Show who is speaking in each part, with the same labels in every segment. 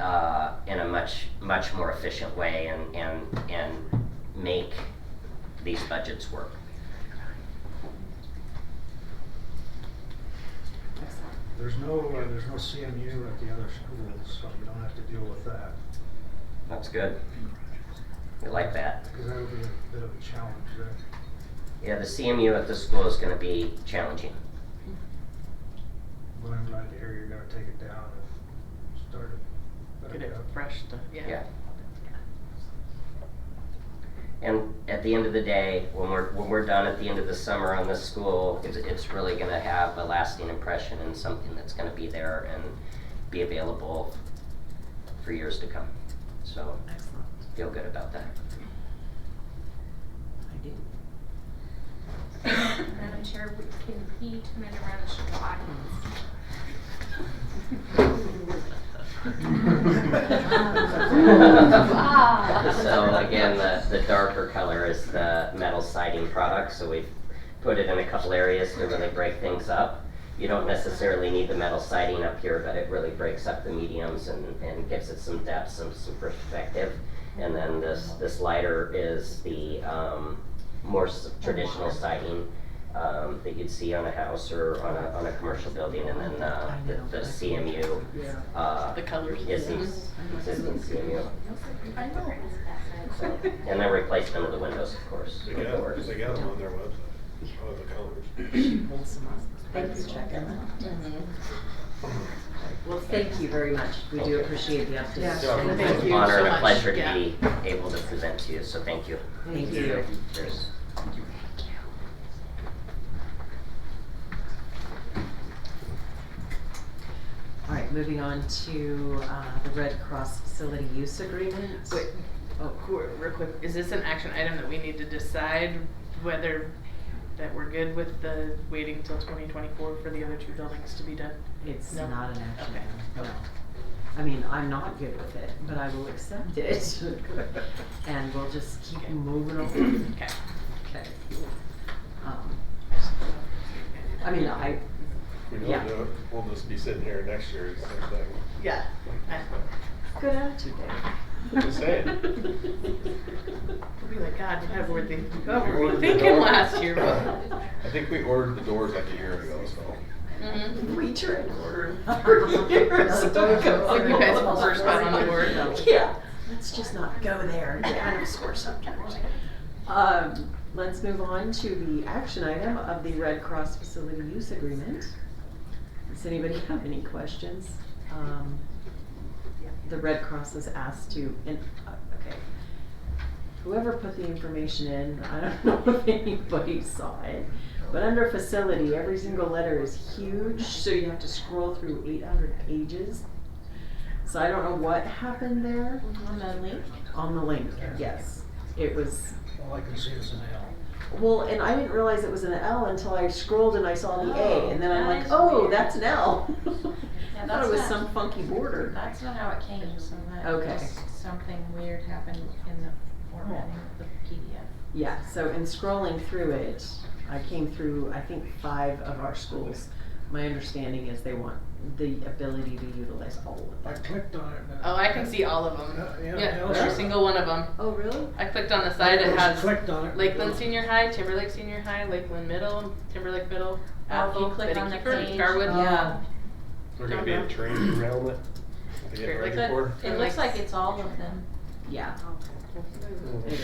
Speaker 1: uh, in a much, much more efficient way and, and, and make these budgets work.
Speaker 2: There's no, uh, there's no CMU at the other schools, so you don't have to deal with that,
Speaker 1: That's good. We like that.
Speaker 2: because that'll be a bit of a challenge there.
Speaker 1: Yeah, the CMU at the school is gonna be challenging.
Speaker 2: But I'm glad to hear you're gonna take it down and start it
Speaker 3: Get
Speaker 2: back
Speaker 3: it
Speaker 2: up.
Speaker 3: fresh to, yeah.
Speaker 1: Yeah. And at the end of the day, when we're, when we're done at the end of the summer on this school, it's, it's really gonna have a lasting impression and something that's gonna be there and be available for years to come. So,
Speaker 3: Excellent.
Speaker 1: feel good about that.
Speaker 3: I do.
Speaker 4: Madam Chair, we- can he turn it around and show the audience?
Speaker 1: So again, the, the darker color is the metal siding product, so we've put it in a couple areas to really break things up. You don't necessarily need the metal siding up here, but it really breaks up the mediums and, and gives it some depth, some, some perspective. And then this, this lighter is the, um, more s- traditional siding, um, that you'd see on a house or on a, on a commercial building. And then, uh, the, the CMU,
Speaker 3: Yeah.
Speaker 1: uh,
Speaker 3: The colors.
Speaker 1: is these existing CMU.
Speaker 4: I know.
Speaker 1: And then replace them with the windows, of course.
Speaker 5: They
Speaker 1: with the
Speaker 5: got,
Speaker 1: words.
Speaker 5: they got them on their website, oh, the colors.
Speaker 6: Thanks for checking out.
Speaker 7: Well, thank you very much. We do appreciate the
Speaker 3: Yeah.
Speaker 7: update.
Speaker 1: So
Speaker 3: Thank
Speaker 1: it's an
Speaker 3: you
Speaker 1: honor
Speaker 3: so
Speaker 1: and a
Speaker 3: much.
Speaker 1: pleasure to
Speaker 3: Yeah.
Speaker 1: be able to present to you, so thank you.
Speaker 7: Thank you.
Speaker 1: Cheers.
Speaker 7: All right, moving on to uh, the Red Cross facility use agreement.
Speaker 3: Wait,
Speaker 7: Oh,
Speaker 3: qu- real quick, is this an action item that we need to decide whether that we're good with the waiting till twenty twenty-four for the other two buildings to be done?
Speaker 7: It's
Speaker 3: No.
Speaker 7: not an action
Speaker 3: Okay.
Speaker 7: item, no. I mean, I'm not good with it, but I will accept it. And we'll just keep
Speaker 3: Okay.
Speaker 7: moving on.
Speaker 3: Okay.
Speaker 7: Okay. Um, I mean, I,
Speaker 5: If we
Speaker 7: Yeah.
Speaker 5: don't do it, we'll just be sitting here next year, it's the same thing.
Speaker 3: Yeah.
Speaker 7: good attitude, Dave.
Speaker 5: Just saying.
Speaker 3: We'll be like, God, what were they, what
Speaker 5: We
Speaker 3: were we
Speaker 5: ordered the
Speaker 3: thinking
Speaker 5: door-
Speaker 3: last year?
Speaker 5: I think we ordered the doors like a year ago, so.
Speaker 7: We tried ordering for years ago.
Speaker 3: Like you guys were first one on the board.
Speaker 7: Yeah, let's just not go there, it kind of scores sometimes. Um, let's move on to the action item of the Red Cross facility use agreement. Does anybody have any questions? Um, The Red Cross is asked to, and, uh, okay. Whoever put the information in, I don't know if anybody saw it, but under facility, every single letter is huge, so you have to scroll through eight hundred pages. So I don't know what happened there
Speaker 6: On the link?
Speaker 7: on the link, yes. It was,
Speaker 2: All I can see is an L.
Speaker 7: well, and I didn't realize it was an L until I scrolled and I saw the A, and then I'm
Speaker 6: Oh, that
Speaker 7: like,
Speaker 6: is
Speaker 7: oh,
Speaker 6: weird.
Speaker 7: that's an L.
Speaker 6: Yeah,
Speaker 7: I thought
Speaker 6: that's
Speaker 7: it was
Speaker 6: not-
Speaker 7: some funky border.
Speaker 6: That's not how it came, so that,
Speaker 7: Okay.
Speaker 6: just something weird happened in the formatting of the PDF.
Speaker 7: Yeah, so in scrolling through it, I came through, I think, five of our schools. My understanding is they want the ability to utilize all of
Speaker 2: I
Speaker 7: them.
Speaker 2: clicked on it. and-
Speaker 3: Oh, I can see all of them.
Speaker 2: Uh, Yeah.
Speaker 3: Yeah,
Speaker 2: L
Speaker 3: every
Speaker 2: shape.
Speaker 3: single one of them.
Speaker 7: Oh, really?
Speaker 3: I clicked on the side,
Speaker 2: I
Speaker 3: it
Speaker 2: just
Speaker 3: has
Speaker 2: Clicked on it.
Speaker 3: Lakeland Senior High, Timberlake Senior High, Lakeland Middle, Timberlake Middle,
Speaker 6: Oh,
Speaker 3: Athol,
Speaker 6: you click
Speaker 3: Betty
Speaker 6: on the
Speaker 3: Keeper,
Speaker 6: page.
Speaker 3: Garwood.
Speaker 6: Oh.
Speaker 7: Yeah.
Speaker 5: We're gonna be in train around it to get
Speaker 3: Sure, like
Speaker 5: ready
Speaker 3: that.
Speaker 5: for.
Speaker 3: It
Speaker 6: It looks
Speaker 3: looks-
Speaker 6: like it's all of them.
Speaker 7: Yeah. it
Speaker 5: it.
Speaker 7: is.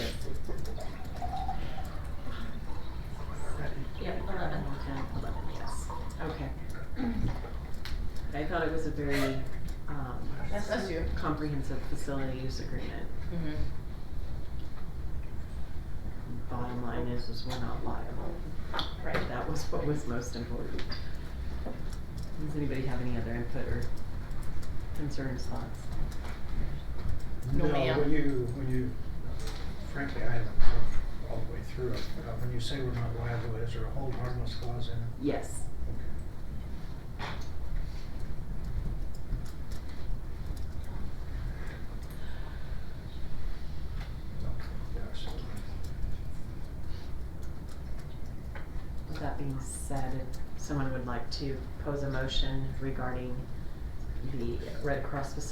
Speaker 6: Yep, eleven.
Speaker 7: Ten, eleven, yes. Okay. I thought it was a very, um,
Speaker 6: That's
Speaker 3: That's you.
Speaker 7: comprehensive facility use agreement.
Speaker 3: Mhm.
Speaker 7: Bottom line is, is we're not liable.
Speaker 3: Right.
Speaker 7: That was what was most important. Does anybody have any other input or concerns, thoughts?
Speaker 3: No,
Speaker 2: No,
Speaker 3: ma'am.
Speaker 2: when you, when you, frankly, I haven't looked all the way through it, but when you say we're not liable, is there a hold harmless clause in it?
Speaker 7: Yes.
Speaker 2: Okay, yeah, so-
Speaker 7: With that being said, if someone would like to pose a motion regarding the Red Cross facility